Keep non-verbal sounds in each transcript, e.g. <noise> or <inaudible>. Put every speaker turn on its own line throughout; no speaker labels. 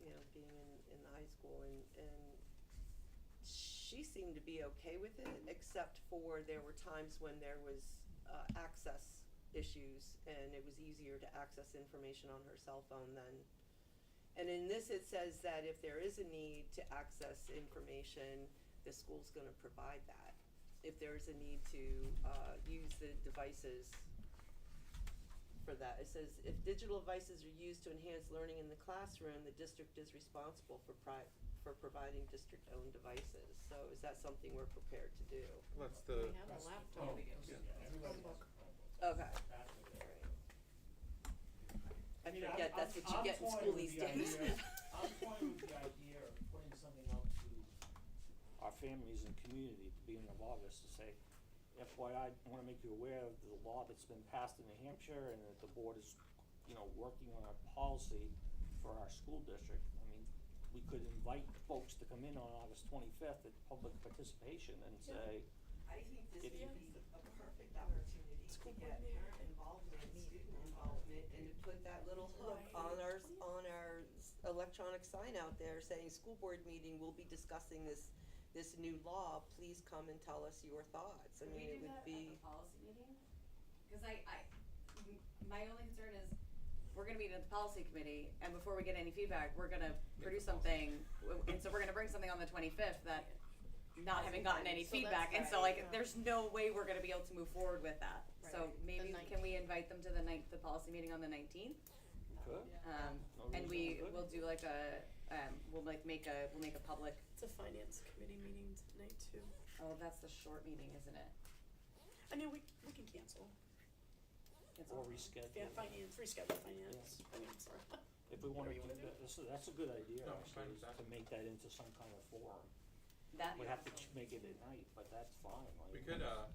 being in, in the high school and, and she seemed to be okay with it, except for there were times when there was, uh, access issues and it was easier to access information on her cell phone than. And in this, it says that if there is a need to access information, the school's gonna provide that. If there is a need to, uh, use the devices, for that. It says, if digital devices are used to enhance learning in the classroom, the district is responsible for pri- for providing district-owned devices. So is that something we're prepared to do?
That's the,
have a
That's the
laptop.
Chromebook, Oh,
Yeah.
yeah, everybody has a Chromebook.
Okay,
That's what
all
they're-
right. I
mean, I'm-
forget, that's
I'm-
what you
I'm
get in
toying
school
with
these
the
days.
idea- I'm toying with the idea of putting something out to our families and community at the beginning of August to say, FYI, I wanna make you aware of the law that's been passed in New Hampshire and that the board is, you know, working on a policy for our school district. I mean, we could invite folks to come in on August twenty-fifth at public participation and say,
I think this
If-
would be a perfect opportunity to get parent involvement, student involvement, and to put that little hook
On our, on our s- electronic sign out there saying, school board meeting, we'll be discussing this, this new law, please come and tell us your thoughts. I
Could
mean, it would
we do that at
be,
the policy meeting? Cause I, I, m- my only concern is, we're gonna meet at the policy committee, and before we get any feedback, we're gonna produce something, w- and so we're gonna bring something on the twenty-fifth that, not having gotten any
So that's
feedback, and so
right,
like,
yeah.
there's no way we're gonna be able to move forward with that. So
Right. The
maybe, can we invite them to the ninth, the policy meeting on the nineteenth?
we could,
Um,
No reason
and we
we couldn't.
will do like a, um, we'll like make a, we'll make a public,
It's a finance committee meeting tonight too.
oh, that's the short meeting, isn't it?
I mean, we, we can cancel.
It's
or
on-
reschedule.
Yeah, finance, reschedule finance. I mean, sorry.
If we wanna
Whatever
do
you wanna do.
that, that's, a- that's a good idea,
No, I'm fine
actually,
with
is
that.
to make that into some kind of forum.
That.
We have to ch- make it at night, but that's fine, like.
we could, uh,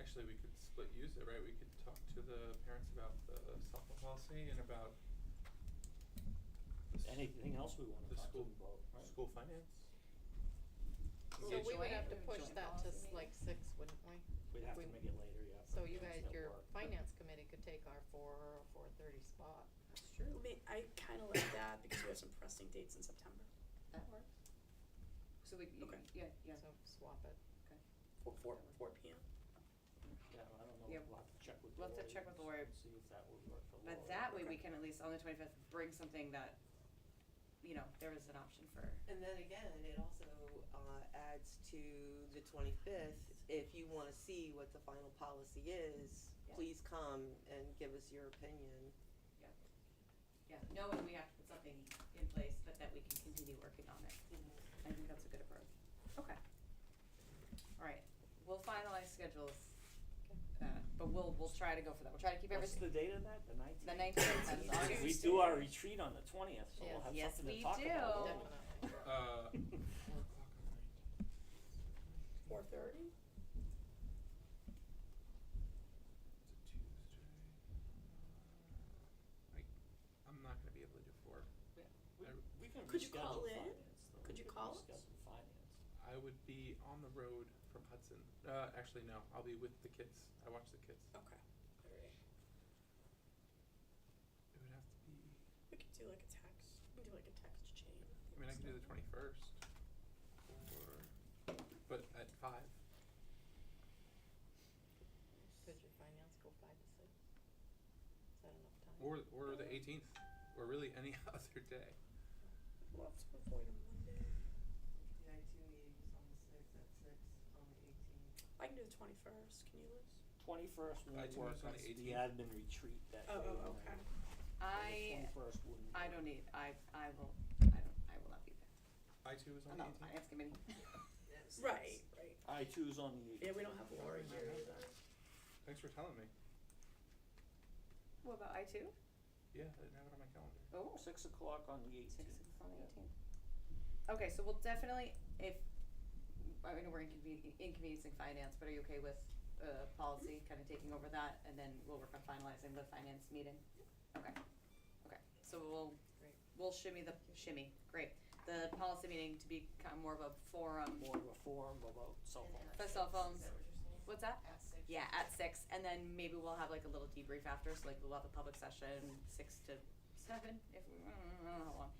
actually, we could split use it, right? We could talk to the parents about the cell phone policy and about the s-
Anything else we wanna
The
talk to
school-
them about, right?
school finance.
So we would
joint-
have to
joint
push that to s-
policy
like six, wouldn't we?
We'd have to
we-
make it later, yeah.
So
for
you
parents
guys,
that
your
work, but-
finance committee could take our four or four thirty spot.
That's true.
I mean, I kinda like that because we have some pressing dates in September.
That works. So we, you-
Okay.
yeah, yeah,
So swap it.
Four, four, four P M.
Yeah, I don't know,
Yeah.
we'll have to check with
We'll have to
Lori
check with
and
Lori.
s- See if that would work for Lori.
but that way we can at least on the twenty-fifth bring something that, you know, there is an option for.
and then again, it also, uh, adds to the twenty-fifth. If you wanna see what the final policy is,
Yeah.
please come and give us your opinion.
Yeah, knowing we have to put something in place, but that we can continue working on it. I think that's a good approach. Mm-hmm. Okay. All right, we'll finalize schedules, uh, but we'll, we'll try to go for that. We'll try to keep
What's
everything.
the date of that, the nineteenth?
The 19th, that's
Tuesday.
We do our retreat on the twentieth, so
Yes.
we'll have
Yes,
something
we
to talk about.
do.
Definitely.
Uh, four o'clock on the
Four thirty?
It's a Tuesday. I, I'm not gonna be able to do four.
We, we can
Could you
reschedule
call in?
finance, though.
Could
We
you
can
call us?
reschedule finance.
I would be on the road from Hudson. Uh, actually, no, I'll be with the kids. I watch the kids.
Okay. Alright.
It would have to be.
We could do like a text, we could do like a text chain.
I mean, I can do the twenty first, or but at five.
Could your finance go five to six? Is that enough time?
Or, or the eighteenth, or really any <laughs> other day.
We'll have to avoid a Monday.
Yeah, I two meetings on the sixth, at six, on the eighteenth.
I can do the twenty-first, can you, Liz?
Twenty-first
I
won't
do
work,
this on
that's
the
the admin retreat that day.
Oh, oh, okay.
I,
Twenty-first wouldn't.
I
work.
don't e- need, I, I will, I don't, I will not be there.
I two is on the
I'm not
eighteenth.
finance committee.
Right, right.
I choose on the
Yeah, we don't have Laura here either.
Thanks for telling me.
<laughs> What about I too?
Yeah, I didn't have it on my calendar.
Oh.
six o'clock on the eighteenth.
Six is on the eighteenth. Okay, so we'll definitely, if, I mean, we're inconven- inconveniencing finance, but are you okay with, uh, policy kind of taking over that, and then we'll work on finalizing the finance meeting? Okay, okay, so we'll,
Great.
we'll shimmy the, shimmy, great, the policy meeting to become more of a forum,
More of a forum about cell phone.
For cell
Is
phones.
that what you're saying?
what's that?
At six?
Yeah, at six, and then maybe we'll have like a little debrief after, so like we'll have a public session, six to seven, if we, I don't know how long,